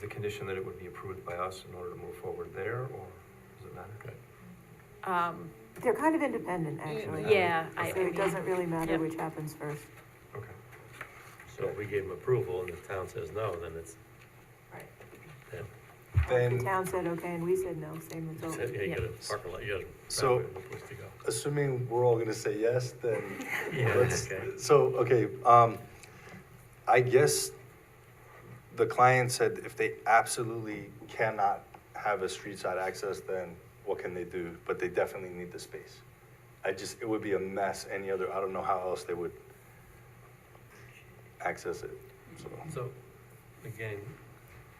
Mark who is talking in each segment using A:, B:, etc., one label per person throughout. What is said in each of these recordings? A: the condition that it would be approved by us in order to move forward there, or does it matter?
B: Um,
C: They're kind of independent, actually.
B: yeah, I, I
C: So it doesn't
B: mean,
C: really matter
B: Yep.
C: which happens first.
A: Okay.
D: So if we gave them approval and the town says no, then it's,
C: The
E: Then,
C: town said okay, and we said no, same
D: you
C: result.
D: said, yeah, you
B: yeah.
D: got a parking lot, you got a
E: So-
D: driveway, no place to go.
E: assuming we're all gonna say yes, then,
D: Yeah,
E: let's,
D: okay.
E: so, okay, um, I guess the client said if they absolutely cannot have a street side access, then what can they do? But they definitely need the space. I just, it would be a mess any other, I don't know how else they would access it, so.
D: So, again,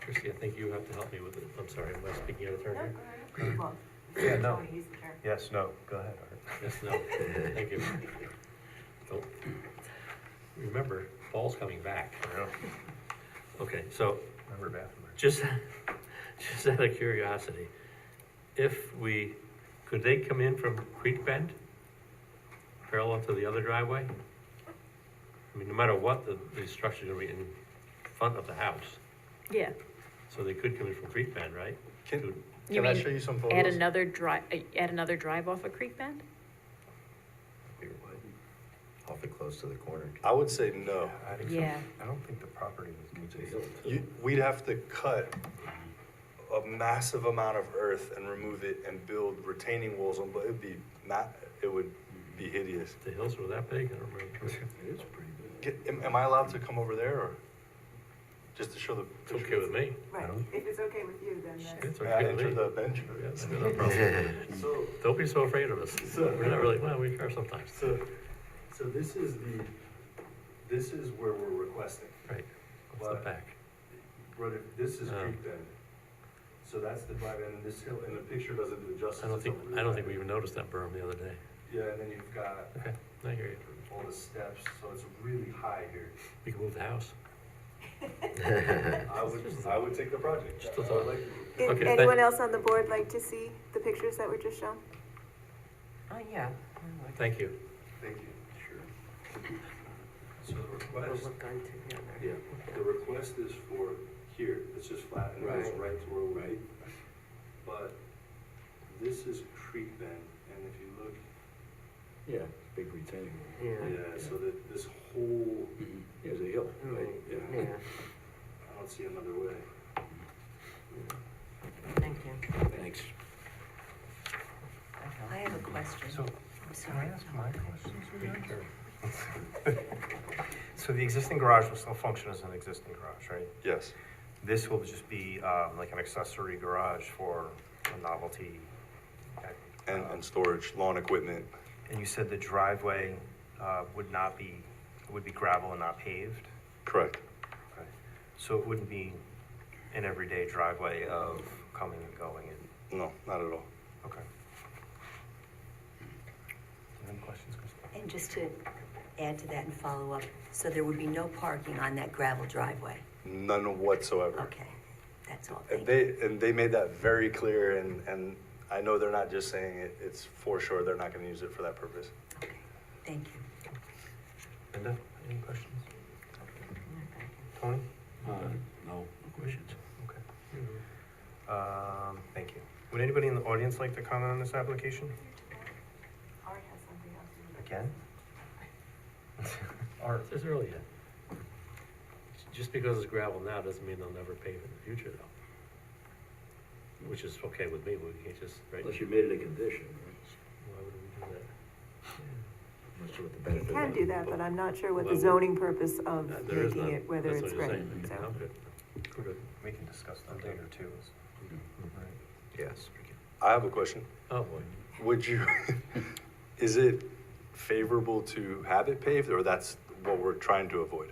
D: Christie, I think you have to help me with it, I'm sorry, am I speaking out of turn here?
C: Well,
A: Yeah, no.
C: Tony, he's the chair.
A: Yes, no, go ahead, Art.
D: Yes, no, thank you. Don't- Remember, Paul's coming back. Okay, so,
A: Remember bathroom.
D: just, just out of curiosity, if we, could they come in from Creek Bend? Parallel to the other driveway? I mean, no matter what, the, the structure's gonna be in front of the house,
B: yeah.
D: so they could come in from Creek Bend, right?
E: Can,
D: To-
B: You
E: can I
B: mean,
E: show you some photos?
B: add another drive, add another drive off of Creek Bend?
F: Awfully close to the corner.
E: I would say no.
A: I think so.
B: Yeah.
A: I don't think the property was built.
E: You, we'd have to cut a massive amount of earth and remove it and build retaining walls on, but it'd be not, it would be hideous.
D: The hills were that big, I don't remember.
F: It is pretty big.
E: Get- Am, am I allowed to come over there or? Just to show the.
D: It's okay with me.
A: I
C: Right,
A: don't-
C: if it's okay with you, then that's.
D: It's
E: May I
D: okay
E: Uh, enter
D: with me.
E: the bench?
D: Yes, no problem.
G: So,
D: Don't be so afraid of us. We're not really, well, we are sometimes.
G: so, so this is the, this is where we're requesting.
D: Right, it's the back.
G: Right, if this is
D: Oh.
G: Creek Bend. So that's the drive in, and this hill, and the picture doesn't do it justice.
D: I don't
G: It's
D: think,
G: over the
D: I don't think we
G: drive.
D: even noticed that berm the other day.
G: Yeah, and then you've got
D: Okay, I hear you.
G: all the steps, so it's really high here.
D: We can move the house.
G: I would, I would take the project.
D: Just a
G: I
D: thought.
G: would like-
C: Did
D: Okay,
C: anyone
D: thank-
C: else on the board like to see the pictures that were just shown?
D: Thank you.
G: Thank you. Sure. So the request. Yeah, the request is for here, it's just flat and goes right to where we. But this is creek bend, and if you look,
F: Yeah, big retaining wall.
G: yeah, so that this whole,
F: There's a hill, right?
G: yeah, I don't see another way.
H: Thank you.
F: Thanks.
H: I have a question.
A: So,
H: I'm
A: can I
H: sorry.
A: ask my questions? Sure. So the existing garage will still function as an existing garage, right?
E: Yes.
A: This will just be um, like an accessory garage for a novelty.
E: And, and storage, lawn equipment.
A: And you said the driveway uh, would not be, would be gravel and not paved?
E: Correct.
A: Okay. So it wouldn't be an everyday driveway of coming and going and,
E: No, not at all.
A: okay. Any questions, Chris?
H: And just to add to that and follow up, so there would be no parking on that gravel driveway?
E: None whatsoever.
H: Okay, that's all,
E: And
H: thank you.
E: they, and they made that very clear and, and I know they're not just saying it, it's for sure, they're not gonna use it for that purpose.
H: Okay, Thank you.
A: Linda, any questions? Tony?
F: Uh, No questions.
A: Okay. Um, thank you. Would anybody in the audience like to comment on this application?
C: Art has something else. he would-
A: Again?
D: Art, it's early yet. Just because it's gravel now doesn't mean they'll never pave it in the future though. Which is okay with me, we can't just, right? Why
F: Unless you made it a condition, right?
D: would we do
F: I'm not sure what the
C: You
F: benefit.
C: can
F: was.
C: do that, but I'm not sure what
D: Well,
C: the
D: we-
C: zoning purpose of
D: that? Uh, There is
C: making
D: none.
C: it, whether
D: That's
C: it's
D: what you're
C: right.
D: saying.
C: so.
D: I'm good. We're good.
A: We can discuss that later too.
F: Yes.
E: I have a question.
D: Oh, boy.
E: Would you, is it favorable to have it paved, or that's what we're trying to avoid?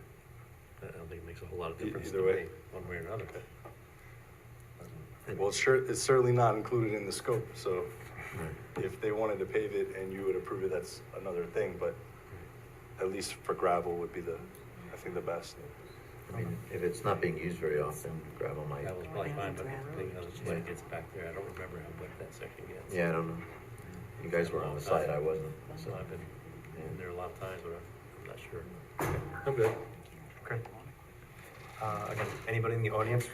D: I don't think it makes a whole lot of
E: E-
D: difference.
E: either
D: to
E: way.
D: me, One way or another.
E: Well, sure, it's certainly not included in the scope, so
F: Right.
E: if they wanted to pave it and you would approve it, that's another thing, but at least for gravel would be the, I think, the best.
F: I mean, if it's not being used very often, gravel might,
D: That was probably fine, but the thing is, when it gets back there, I don't remember how wet that section gets.
F: yeah, I don't know. You guys were on the site, I wasn't,
D: So
F: so.
D: I've been in there a lot of times, but I'm not sure. I'm good.
A: Okay. Uh, again, anybody in the audience